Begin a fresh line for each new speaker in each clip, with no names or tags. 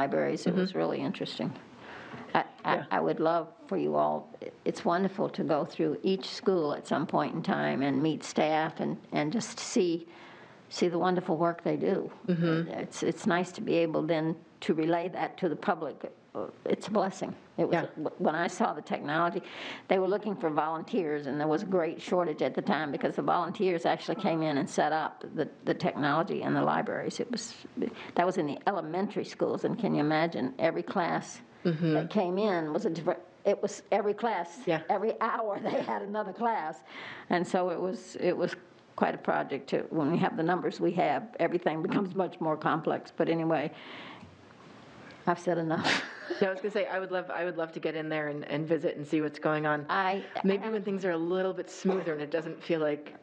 libraries. It was really interesting. I- I, I would love for you all, it's wonderful to go through each school at some point in time and meet staff and, and just see, see the wonderful work they do. It's, it's nice to be able then to relay that to the public. It's a blessing. It was, when I saw the technology, they were looking for volunteers, and there was a great shortage at the time because the volunteers actually came in and set up the, the technology in the libraries. It was, that was in the elementary schools, and can you imagine, every class that came in was a different, it was every class.
Mm-hmm. Yeah.
Every hour, they had another class. And so it was, it was quite a project to, when we have the numbers we have, everything
Mm-hmm.
becomes much more complex. But anyway, I've said enough.
No, I was gonna say, I would love, I would love to get in there and, and visit and see what's going on.
I,
Maybe when things are a little bit smoother and it doesn't feel like,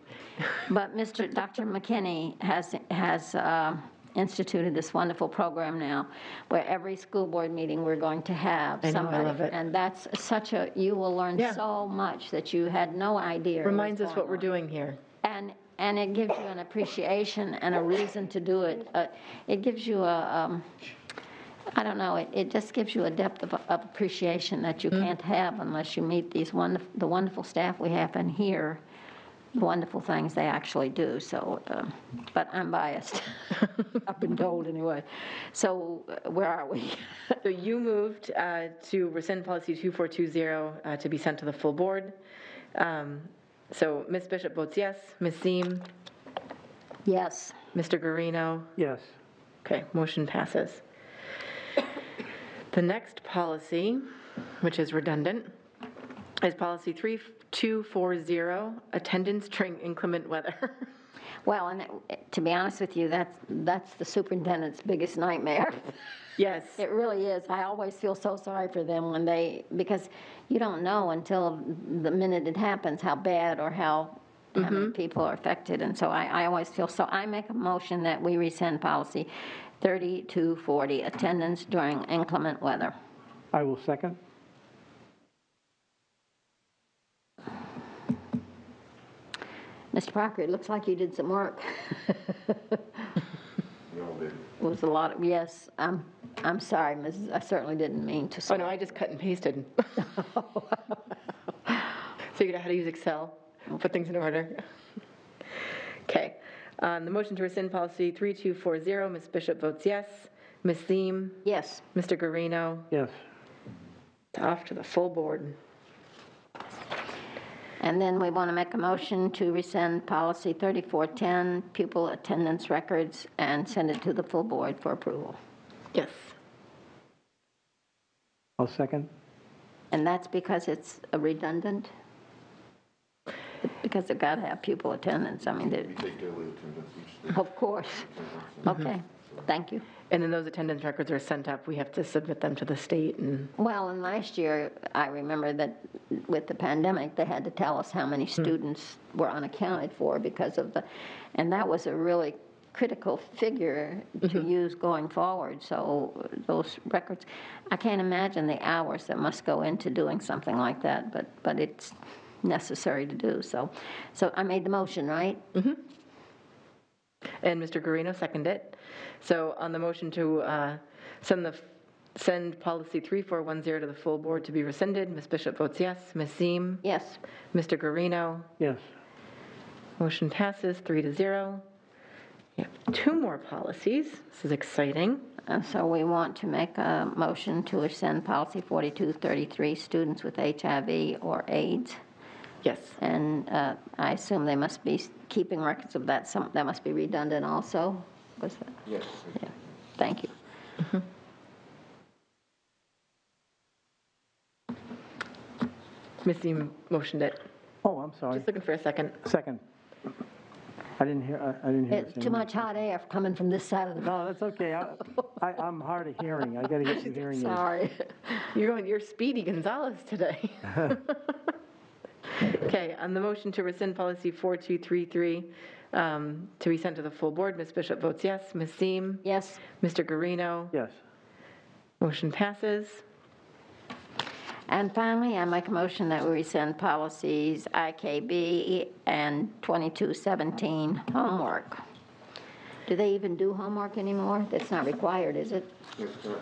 But Mr., Dr. McKinney has, has um, instituted this wonderful program now, where every school board meeting, we're going to have
I know, I
somebody.
love it.
And that's such a, you will learn
Yeah.
so much that you had no idea. was
reminds us
going
what
on.
we're doing here.
And, and it gives you an appreciation and a reason to do it. Uh, It gives you a, um, I don't know, it, it just gives you a depth of, of appreciation that you can't have unless you meet these wonderful, the wonderful staff we have and hear the wonderful things they actually do, so, um, but I'm biased. I've been told anyway. So uh, where are we?
So you moved uh, to rescind policy 2420 uh, to be sent to the full board. Um, So Ms. Bishop votes yes, Ms. Seem,
Yes,
Mr. Guarino.
Yes.
Okay, motion passes. The next policy, which is redundant, is policy 3240, attendance during inclement weather.
well, and it- to be honest with you, that's, that's the superintendent's biggest nightmare.
Yes,
It really is. I always feel so sorry for them when they, because you don't know until the minute it happens how bad or how, how
Mm-hmm.
many people are affected. And so I, I always feel so. I make a motion that we rescind policy 3240, attendance during inclement weather.
I will second.
Mr. Parker, it looks like you did some work. It was a lot of, yes, I'm, I'm sorry, Mrs., I certainly didn't mean to.
oh no, I just cut and pasted. Figured out how to use Excel, put things in order. Okay, Um, the motion to rescind policy 3240, Ms. Bishop votes yes, Ms. Seem,
Yes.
Mr. Guarino,
Yes.
off to the full board.
And then we want to make a motion to rescind policy 3410, pupil attendance records, and send it to the full board for approval.
Yes.
I'll second.
And that's because it's a redundant? Because they've got to have pupil attendance, I mean, they-
take daily attendance each day.
of course. Okay, thank you.
And then those attendance records are sent up, we have to submit them to the state and,
Well, and last year, I remember that with the pandemic, they had to tell us how many students were unaccounted for because of the, and that was a really critical figure to use going forward, so those records, I can't imagine the hours that must go into doing something like that, but, but it's necessary to do, so. So I made the motion, right?
and Mr. Guarino seconded it. So on the motion to uh, send the, send policy 3410 to the full board to be rescinded, Ms. Bishop votes yes, Ms. Seem,
Yes,
Mr. Guarino,
Yes.
motion passes three to zero. We have two more policies, this is exciting.
and so we want to make a motion to rescind policy 4233, students with HIV or AIDS.
Yes,
And uh, I assume they must be keeping records of that, some, that must be redundant also, was that?
Yes.
Yeah, thank you.
Ms. Seem motioned it.
Oh, I'm sorry.
Just looking for a second.
Second. I didn't hear, I- I didn't hear.
It's
the
too
same.
much hot air coming from this side of the,
No, that's okay. I, I- I'm hard of hearing. I gotta get some hearing aids.
sorry.
You're going, you're Speedy Gonzalez today. Okay, on the motion to rescind policy 4233, um, to be sent to the full board, Ms. Bishop votes yes, Ms. Seem,
Yes,
Mr. Guarino,
Yes.
motion passes.
and finally, I make a motion that we rescind policies IKB and 2217, homework. Do they even do homework anymore? That's not required, is it?
Yes, sir.